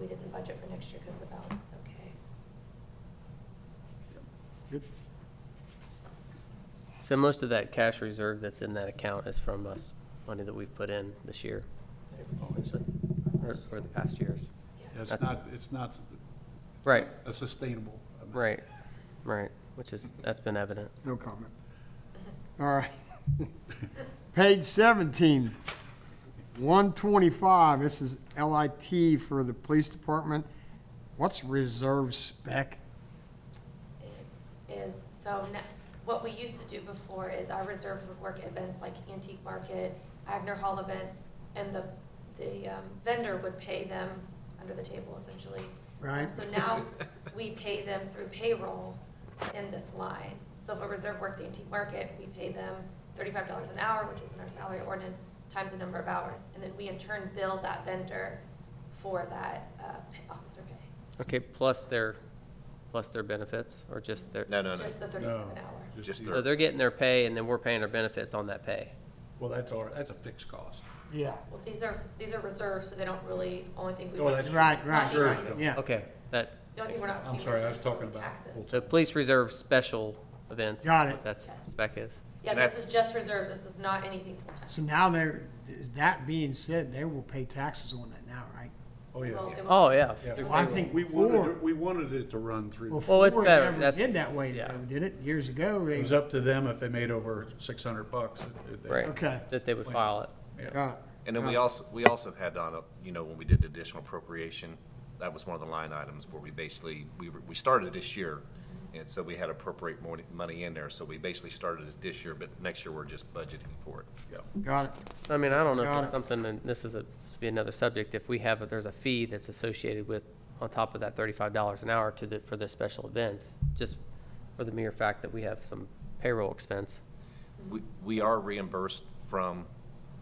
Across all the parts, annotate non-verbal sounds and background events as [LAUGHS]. we didn't budget for next year because the balance is okay. Good. So most of that cash reserve that's in that account is from us, money that we've put in this year, essentially, or, or the past years. Yeah. It's That's- not, it's not Right, a sustainable. amount. right, right, which is, that's been evident. No comment. All right. Page 17, 125, this is LIT for the police department. What's reserve spec? It Is, so now, what we used to do before is our reserves would work at events like Antique Market, Agner Hall events, and the, the um, vendor would pay them under the table essentially. Right. So now we pay them through payroll in this line. So if a reserve works Antique Market, we pay them thirty-five dollars an hour, which is in our salary ordinance, times the number of hours. And then we in turn bill that vendor for that uh, pa- officer pay, Okay, plus their, plus their benefits, or just their, No, no, no. just the thirty-five an hour. Just so the, they're getting their pay and then we're paying our benefits on that pay. Well, that's all, that's a fixed cost. Yeah. Well, these are, these are reserves, so they don't really, only thing we. Oh, that's- Right, right, right, yeah. Okay, that, The only thing we're not. I'm sorry, I was talking about Taxes. full- so police reserve special events. Got it. That's spec is. Yeah, this is just reserves, this is not anything full tax. So now they're, that being said, they will pay taxes on that now, right? Oh, yeah. Well, it Oh, will- yeah. Yeah. Well, I think We wanted, before, it- we wanted it to run through. before it it's better, never that's- did that way, yeah. though, did it? Years ago, It they, was up to them if they made over six hundred bucks. it- it- Right. okay. That they would file it. Got it. and then we also, we also had on, a- you know, when we did the additional appropriation, that was one of the line items where we basically, we, were- we started this year, and so we had appropriate more money in there, so we basically started it this year, but next year we're just budgeting for it. Yeah. Got it. So I mean, I don't know if Got it's it. something, and this is a, this would be another subject, if we have, there's a fee that's associated with, on top of that thirty-five dollars an hour to the, for the special events, just for the mere fact that we have some payroll expense. We, we are reimbursed from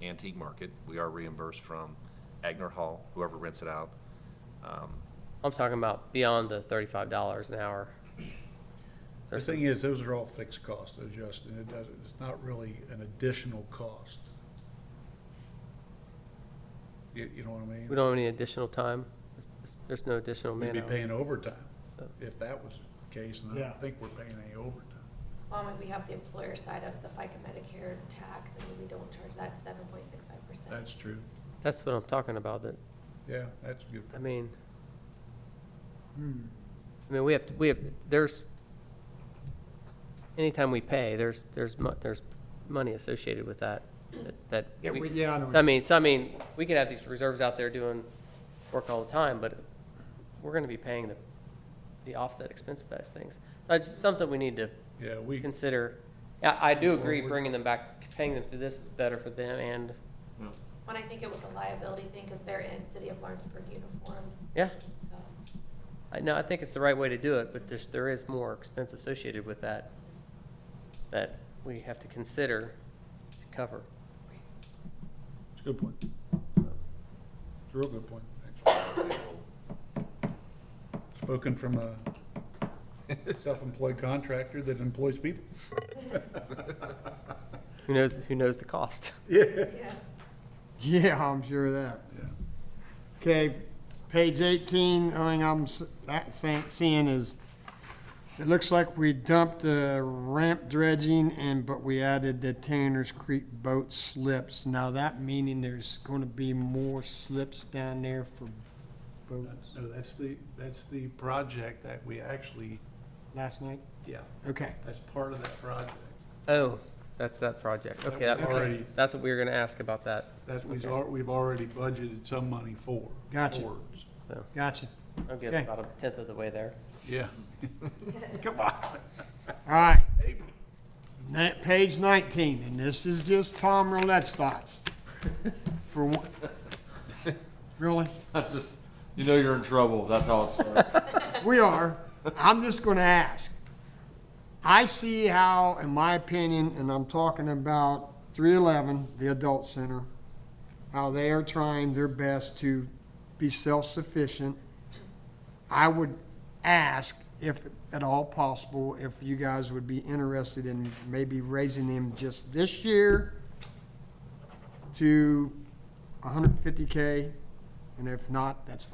Antique Market, we are reimbursed from Agner Hall, whoever rents [LAUGHS] it out. Um, I'm talking about beyond the thirty-five dollars an hour. The thing is, those are all fixed costs, though, Justin. It doesn't, it's not really an additional cost. You, you know what I mean? We don't have any additional time, There's- there's no additional We'd man be hours. paying overtime So- if that was the case, and I Yeah. don't think we're paying any overtime. Well, and we have the employer side of the FICA Medicare tax, and we don't charge that seven point six five percent. That's true. That's what I'm talking about, that, Yeah, that's a good. I mean, I mean, we have, to. we have, there's, anytime we pay, there's, there's, mo- there's money associated with that. That's- That, Yeah, we- we- yeah, I know. so I mean, so I mean, we could have these reserves out there doing work all the time, but we're gonna be paying the, the offset expense of those things. So it's something we need to Yeah, we, consider. I, I do agree bringing them back, paying them through this is better for them and, When I think it was a liability thing, because they're in City of Lawrenceburg uniforms, yeah. so. I know, I think it's the right way to do it, but there's, there is more expense associated with that that we have to consider to cover. it's a good point. It's a real good point, actually. Spoken from a self-employed contractor that employs people. Who knows, who knows the cost? Yeah. Yeah. [LAUGHS] Yeah, I'm sure of that. Okay, page 18, only thing I'm s- that sa- seeing is, it looks like we dumped the ramp dredging and, but we added the Tanner's Creek boat slips. Now that meaning there's going to be more slips down there for boats No, that's the, that's the project that we actually, last night? yeah, Okay, that's part of that project. Oh, that's that project. Okay, That that- was already- that's, that's what we were gonna ask about that, That we've, al- we've already budgeted some money for. Gotcha. towards. so. gotcha. I guess Okay. about a tenth of the way there. Yeah. Come on. All right. Na- Page 19, and this is just Tom Roulette's thoughts. For one, [LAUGHS] really? Just, you know you're in trouble. That's how it starts. We are. I'm just going to ask. I see how, in my opinion, and I'm talking about 311, the adult center, how they are trying their best to be self-sufficient. I would ask if at all possible, if you guys would be interested in maybe raising them just this year to 150K, and if not, that's fine.